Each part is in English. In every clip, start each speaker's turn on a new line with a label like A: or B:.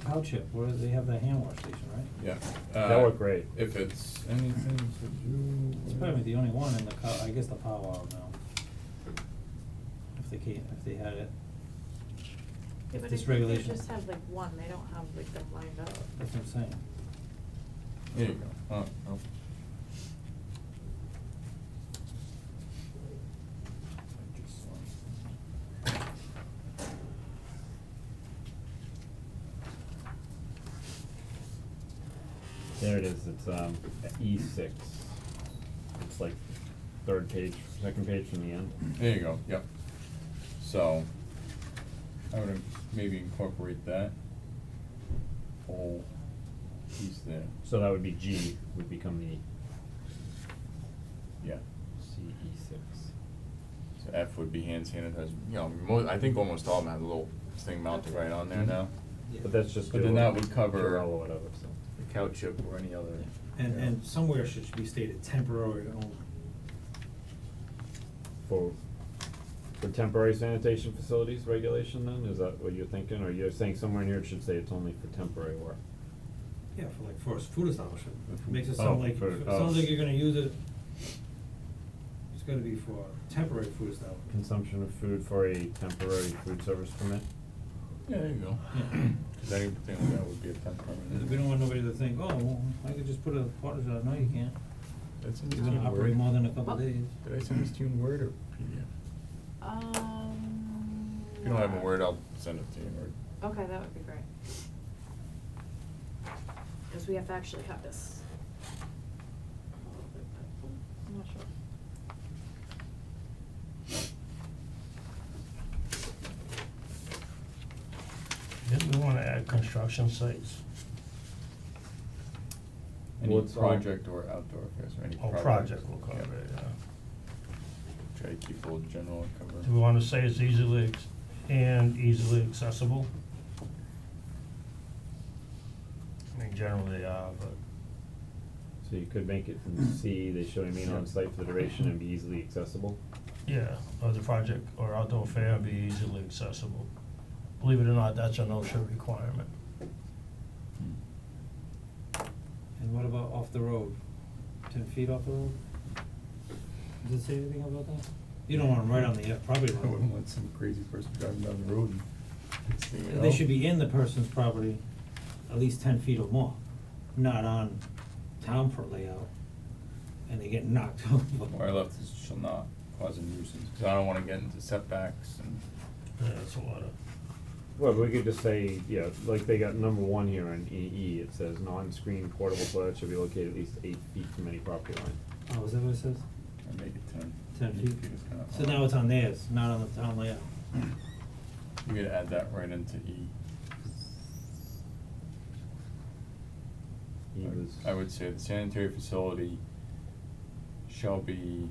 A: Township, where they have the hand wash station, right?
B: Yeah.
C: That
B: uh,
C: worked great.
B: If it's anything to
A: It's
B: do.
A: probably the only one in the co- I guess the powwow now. If they can't, if they had it,
D: Yeah, but I
A: This
D: think
A: regulation.
D: they just have like one, they don't have like them lined up.
A: that's what I'm saying.
B: There you go, oh, oh.
C: There it is, it's um E six. It's like third page, second page from the end.
B: There you go, yep. So, I would maybe incorporate that whole piece there,
C: So that would be G, would become the
B: yeah.
C: C E six.
B: So F would be hand sanitizer, you know, mo- I think almost all of them have a little thing mounted right on there now.
C: But that's just.
B: But then
C: Durell-
B: that would cover-
C: Durell or whatever, so.
B: The cow chip or any other.
E: And,
B: you know.
E: and somewhere should be stated temporary only.
C: For, for temporary sanitation facilities regulation then, is that what you're thinking, or you're saying somewhere in here it should say it's only for temporary work?
E: Yeah, for like, for a food establishment,
C: If we-
E: makes it
C: oh,
E: sound like,
C: for-
E: it
C: oh.
E: sounds like you're gonna use it. It's gonna be for temporary food establishment.
C: Consumption of food for a temporary food service permit?
B: Yeah, there you go.
A: Yeah.
B: Cause anything like that would be a temporary.
A: We don't want nobody to think, oh, well, I could just put a portage out, no, you can't,
B: That's in
A: you're gonna operate more than a couple
D: Well-
A: days.
B: Did I send this to you in Word or PDF?
D: Um.
B: If you don't have a Word, I'll send it to you in Word.
D: Okay, that would be great. Cause we have to actually cut this. A little bit, but I'm not sure.
F: Didn't we wanna add construction sites?
B: Any
C: What's all-
B: project or outdoor affairs, or any
F: Oh,
B: project.
F: project will cover
B: Yeah.
F: it, yeah.
B: Try to keep a little general and cover.
F: Do we wanna say it's easily ex- and easily accessible? I mean, generally, uh, but
C: So you could make it
B: Mm.
C: from C, they shall remain on site for the duration and be easily accessible?
F: yeah, or the project or outdoor fair be easily accessible. Believe it or not, that's an OSHA requirement.
B: Hmm.
A: And what about off the road, ten feet off the road? Does it say anything about that? You don't want them right on the, uh, property
B: I wouldn't
A: line,
B: want some crazy person driving down the road and seeing it
A: they
B: all.
A: should be in the person's property at least ten feet or more, not on town for layout, and they get knocked over.
B: Where I left is shall not cause a nuisance, cause I don't wanna get into setbacks and,
F: Yeah, that's a lot of,
C: Well, we could just say, yeah, like they got number one here on E E, it says non-screened portable toilet should be located at least eight feet from any property line.
A: Oh, is that what it says?
B: and make it ten.
A: Ten
B: Eight
A: feet?
B: is kinda
A: So
B: odd.
A: now it's on theirs, not on the town layout.
B: You could add that right into E.
C: E
B: I-
C: was.
B: I would say the sanitary facility shall be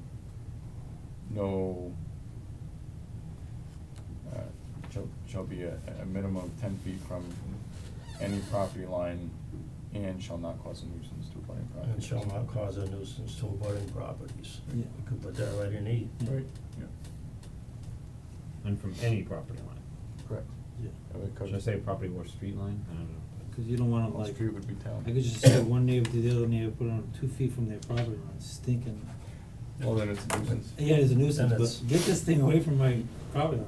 B: no, uh, shall, shall be a, a minimum of ten feet from any property line and shall not cause a nuisance to a budding property.
F: and shall not cause a nuisance to abutting properties.
A: Yeah.
F: We could put that right in E.
B: Right, yeah,
C: And from any property line.
B: correct.
A: Yeah.
B: That would cover.
C: Should I say property or street line? I don't know.
A: Cause you don't want them
B: Well,
A: like,
B: street would be town.
A: I could just say one neighbor to the other neighbor, put it on two feet from their property line, stinking.
B: Well, then it's a nuisance.
A: Yeah, it's a
F: And
A: nuisance,
F: it's-
A: but get this thing away from my property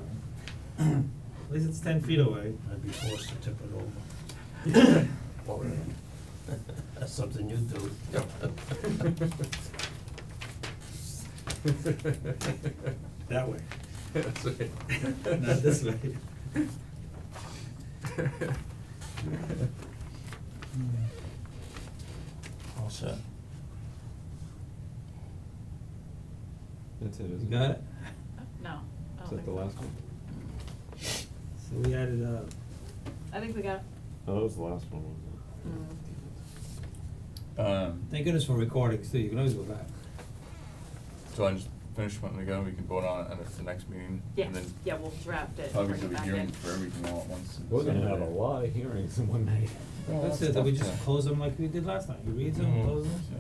A: line. At least it's ten feet away.
F: I'd be forced to tip it over. That's uh, something you do.
E: That way.
B: That's right.
E: Not this way.
F: All set.
C: That's it, isn't
A: You
C: it?
A: got it?
D: Uh, No, I
C: Is
D: don't think
C: that the
D: so.
C: last one?
A: So we added, uh,
D: I think we got,
C: Oh, that was the last one, wasn't it?
B: Um,
A: thank goodness for recordings too, you can always go back.
B: so I just finished one ago, we can vote on it at the next meeting,
D: yeah,
B: and then
D: yeah, we'll draft it,
B: probably
D: bring
B: do
D: it
B: a
D: back in.
B: hearing for everything all at once. in
C: We're gonna
B: December.
C: have a lot of hearings in one night.
B: Well,
A: That's
B: that's
A: it, then we
B: tough
A: just
B: to-
A: close them like we did last night, you read them,
F: Mhm.
A: close them.
B: Yeah.